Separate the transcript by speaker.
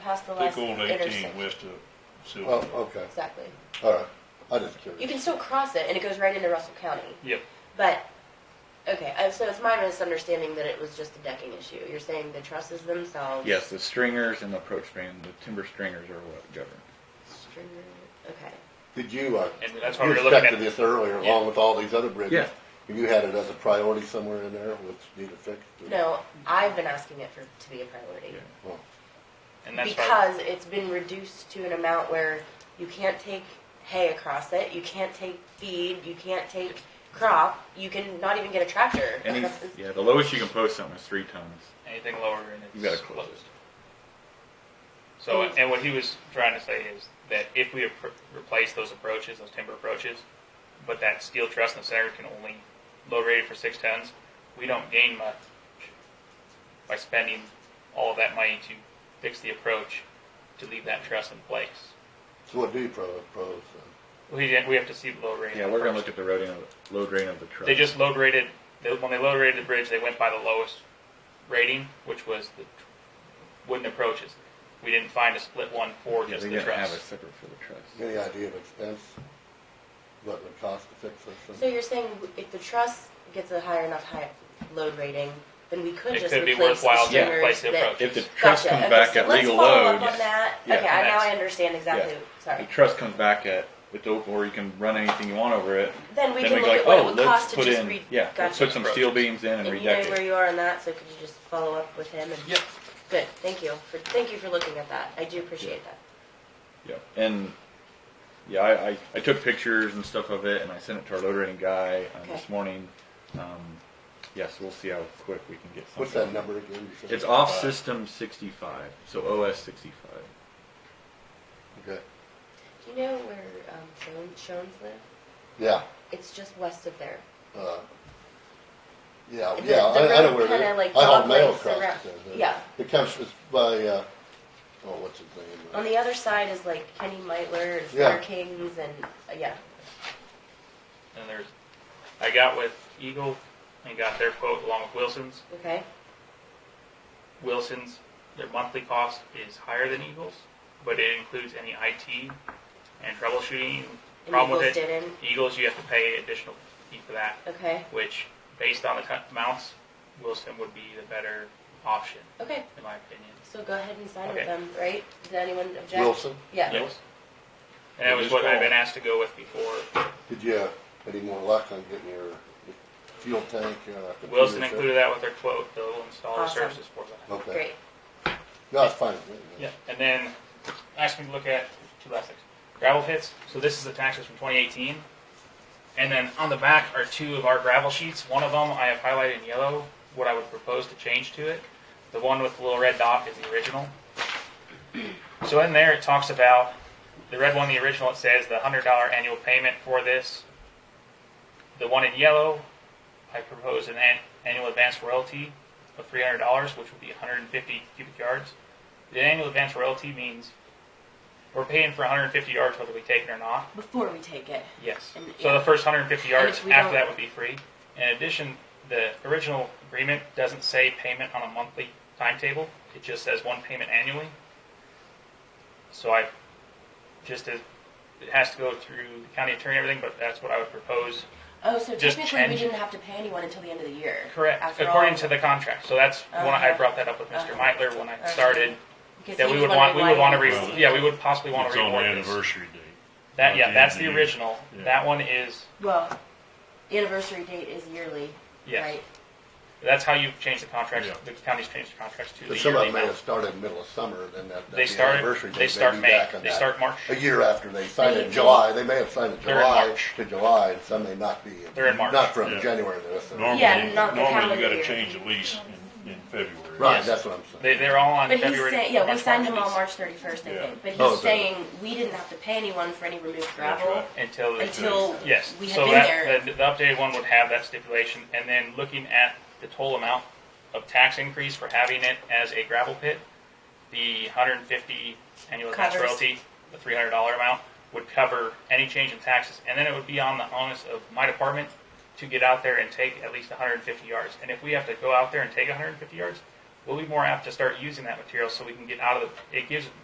Speaker 1: across the last
Speaker 2: Pick old eighteen
Speaker 1: intersection.
Speaker 2: west of
Speaker 3: Oh,
Speaker 2: Sylvan.
Speaker 3: okay,
Speaker 1: Exactly.
Speaker 3: all right. I just
Speaker 1: You
Speaker 3: curious.
Speaker 1: can still cross it, and it goes right into Russell County.
Speaker 4: Yep.
Speaker 1: But, okay, uh, so it's my misunderstanding that it was just a decking issue. You're saying the trusses themselves?
Speaker 5: Yes, the stringers and the approach string, the timber stringers are what govern.
Speaker 1: String- Okay.
Speaker 3: Did you, uh,
Speaker 4: And that's why
Speaker 3: you
Speaker 4: we were looking
Speaker 3: stuck
Speaker 4: at.
Speaker 3: to this earlier
Speaker 4: Yeah.
Speaker 3: along with all these other bridges?
Speaker 5: Yeah.
Speaker 3: Have you had it as a priority somewhere in there which need a fix?
Speaker 1: No, I've been asking it for, to be a priority.
Speaker 5: Yeah.
Speaker 3: Well,
Speaker 4: And that's why,
Speaker 1: Because it's been reduced to an amount where you can't take hay across it, you can't take feed, you can't take crop, you can not even get a tractor.
Speaker 5: Any,
Speaker 1: across this-
Speaker 5: yeah, the lowest you can post something is three tons.
Speaker 4: anything lower
Speaker 5: You
Speaker 4: and
Speaker 5: gotta
Speaker 4: it's
Speaker 5: close it.
Speaker 4: closed. So, and what he was trying to say is that if we appro- replace those approaches, those timber approaches, but that steel truss in the center can only load rated for six tons, we don't gain much by spending all of that money to fix the approach to leave that truss in place.
Speaker 3: So what do you pro- propose?
Speaker 4: We, didn't- we have to see the load rating.
Speaker 5: Yeah, we're gonna
Speaker 4: first.
Speaker 5: look at the road end, load rating of the truck.
Speaker 4: They just load rated, they, when they load rated the bridge, they went by the lowest rating, which was the wooden approaches. We didn't find a split one for
Speaker 5: Yeah,
Speaker 4: just
Speaker 5: they
Speaker 4: the
Speaker 5: didn't have a
Speaker 4: truss.
Speaker 5: separate for the
Speaker 3: then?
Speaker 5: truss.
Speaker 3: Any idea of expense? What it would cost to fix this?
Speaker 1: So
Speaker 3: thing?
Speaker 1: you're saying if the truss gets a high enough high load rating, then we could
Speaker 4: It
Speaker 1: just
Speaker 4: could be
Speaker 1: replace the
Speaker 4: worthwhile to
Speaker 1: stringers
Speaker 4: replace the
Speaker 1: that.
Speaker 4: approach.
Speaker 5: If the truss
Speaker 1: Gotcha.
Speaker 5: comes
Speaker 1: Okay,
Speaker 5: back
Speaker 1: so
Speaker 5: at
Speaker 1: let's
Speaker 5: legal
Speaker 1: follow up
Speaker 5: load,
Speaker 1: on that.
Speaker 5: Yeah.
Speaker 1: Okay, I- now
Speaker 4: That's-
Speaker 1: I understand exactly,
Speaker 5: the
Speaker 1: sorry.
Speaker 5: truss comes back at, it's open, or you can run anything you want over it.
Speaker 1: Then we
Speaker 5: Then
Speaker 1: can
Speaker 5: we
Speaker 1: look
Speaker 5: go like,
Speaker 1: at what it
Speaker 5: oh,
Speaker 1: would cost
Speaker 5: let's
Speaker 1: to
Speaker 5: put
Speaker 1: just
Speaker 5: in,
Speaker 1: re.
Speaker 5: yeah, let's
Speaker 1: gotcha.
Speaker 5: put some steel beams in and
Speaker 1: And you know
Speaker 5: redeck
Speaker 1: where
Speaker 5: it.
Speaker 1: you are on that, so could you just follow up with him and?
Speaker 4: Yep.
Speaker 1: Good, thank you, for, thank you for looking at that, I do appreciate that.
Speaker 5: Yeah, and, yeah, I, I, I took pictures and stuff of it, and I sent it to our load rating guy, um,
Speaker 1: Okay.
Speaker 5: this morning. Um, yes, we'll see how quick we can get something.
Speaker 3: What's that number again? you said?
Speaker 5: It's off system sixty-five, so OS sixty-five.
Speaker 3: Okay,
Speaker 1: Do you know where, um, Shone- Shones live?
Speaker 3: yeah,
Speaker 1: It's just west of there.
Speaker 3: uh, yeah,
Speaker 1: The- the
Speaker 3: yeah, I, I know
Speaker 1: road
Speaker 3: where
Speaker 1: kinda,
Speaker 3: it
Speaker 1: like,
Speaker 3: is. I haul mail
Speaker 1: doglegs
Speaker 3: across
Speaker 1: around-
Speaker 3: it there.
Speaker 1: yeah.
Speaker 3: It comes, it's by, uh, oh, what's his name? uh,
Speaker 1: On the other side is like Kenny Meitler, and
Speaker 3: Yeah.
Speaker 1: Star Kings, and, uh, yeah,
Speaker 4: And there's, I got with Eagle and got their quote along with Wilson's.
Speaker 1: okay?
Speaker 4: Wilson's, their monthly cost is higher than Eagle's, but it includes any IT and troubleshooting
Speaker 1: And
Speaker 4: problem with
Speaker 1: Eagles
Speaker 4: it.
Speaker 1: didn't,
Speaker 4: Eagles, you have to pay additional fee for that,
Speaker 1: okay,
Speaker 4: which based on the cut amounts, Wilson would be the better option,
Speaker 1: okay,
Speaker 4: in my opinion.
Speaker 1: so go ahead and sign with
Speaker 4: Okay.
Speaker 1: them, right? Did anyone object?
Speaker 3: Wilson?
Speaker 1: Yeah,
Speaker 4: Yes. And that was what I've been asked to go with before.
Speaker 3: Did you have any more luck on getting your fuel tank? uh, computer
Speaker 4: Wilson
Speaker 3: set?
Speaker 4: included that with their quote, they'll install the
Speaker 1: Awesome.
Speaker 4: services for that.
Speaker 3: Okay.
Speaker 1: great,
Speaker 3: No, it's fine.
Speaker 4: Yeah, and then asked me to look at two last things. Gravel pits. So this is the taxes from 2018. And then on the back are two of our gravel sheets. One of them I have highlighted in yellow what I would propose to change to it. The one with the little red dot is the original. So in there it talks about the red one, the original, it says the $100 annual payment for this. The one in yellow, I propose an an- annual advance royalty of $300, which would be 150 cubic yards. The annual advance royalty means we're paying for 150 yards whether we take it or not.
Speaker 6: before we take it.
Speaker 4: Yes.
Speaker 6: And-
Speaker 4: So the first 150 yards
Speaker 6: if we
Speaker 4: after
Speaker 6: don't-
Speaker 4: that would be free. In addition, the original agreement doesn't say payment on a monthly timetable. It just says one payment annually. So I just as it has to go through the county attorney and everything, but that's what I would propose.
Speaker 6: Oh, so
Speaker 4: Just
Speaker 6: technically we
Speaker 4: change-
Speaker 6: didn't have to pay anyone until the end of the year.
Speaker 4: Correct.
Speaker 6: After
Speaker 4: According
Speaker 6: all,
Speaker 4: to the contract. So that's when I
Speaker 6: Uh-huh.
Speaker 4: brought that up with mister
Speaker 6: Uh-huh.
Speaker 4: Meitler when I
Speaker 6: Uh-huh.
Speaker 4: started.
Speaker 6: because
Speaker 4: That
Speaker 6: he
Speaker 4: we
Speaker 6: was
Speaker 4: would want, we
Speaker 6: wondering
Speaker 4: would
Speaker 6: why
Speaker 4: want to,
Speaker 6: we
Speaker 4: re-
Speaker 6: didn't see
Speaker 4: yeah,
Speaker 6: it.
Speaker 4: we would possibly want
Speaker 2: It's
Speaker 4: to
Speaker 2: on the
Speaker 4: reward this.
Speaker 2: anniversary date.
Speaker 4: That
Speaker 2: Not
Speaker 4: yeah,
Speaker 2: the
Speaker 4: that's
Speaker 2: end
Speaker 4: the
Speaker 2: of the year.
Speaker 4: original.
Speaker 2: Yeah.
Speaker 4: That one is
Speaker 6: Well, the anniversary date is yearly,
Speaker 4: yes.
Speaker 6: right?
Speaker 4: That's how you've changed the contracts.
Speaker 2: Yeah.
Speaker 4: The county's changed the contracts to the
Speaker 3: But some of
Speaker 4: yearly
Speaker 3: them may have
Speaker 4: amount.
Speaker 3: started middle of summer, then that.
Speaker 4: They
Speaker 3: that
Speaker 4: start.
Speaker 3: anniversary date
Speaker 4: They
Speaker 3: may
Speaker 4: start
Speaker 3: be
Speaker 4: May.
Speaker 3: back on
Speaker 4: They
Speaker 3: that.
Speaker 4: start March.
Speaker 3: A year after they signed
Speaker 6: They-
Speaker 3: it, July, they may have signed it
Speaker 4: They're in
Speaker 3: July
Speaker 4: March.
Speaker 3: to July, and some may not be.
Speaker 4: They're in March.
Speaker 3: Not from
Speaker 2: Yeah.
Speaker 3: January to this.
Speaker 2: Normally,
Speaker 1: Yeah, not the
Speaker 2: normally
Speaker 1: calendar
Speaker 2: you gotta
Speaker 1: year.
Speaker 2: change the lease in, in February.
Speaker 3: Right, that's what I'm saying.
Speaker 4: They, they're all on
Speaker 6: But he's
Speaker 4: February.
Speaker 6: saying, yeah, we
Speaker 4: March,
Speaker 6: signed him
Speaker 4: March
Speaker 6: on
Speaker 4: lease
Speaker 6: March thirty-first, I
Speaker 2: Yeah.
Speaker 6: think, but
Speaker 3: Oh,
Speaker 6: he's
Speaker 3: okay.
Speaker 6: saying we didn't have to pay anyone for any removed
Speaker 2: That's
Speaker 6: gravel
Speaker 2: right.
Speaker 4: until the-
Speaker 6: until
Speaker 4: yes.
Speaker 6: we
Speaker 4: so
Speaker 6: had been
Speaker 4: that
Speaker 6: there.
Speaker 4: The, the updated one would have that stipulation, and then looking at the total amount of tax increase for having it as a gravel pit, the 150 annual advance
Speaker 6: Covers.
Speaker 4: royalty, the 300 dollar amount would cover any change in taxes, and then it would be on the onus of my department to get out there and take at least 150 yards. And if we have to go out there and take 150 yards, we'll be more apt to start using that material so we can get out of the. It gives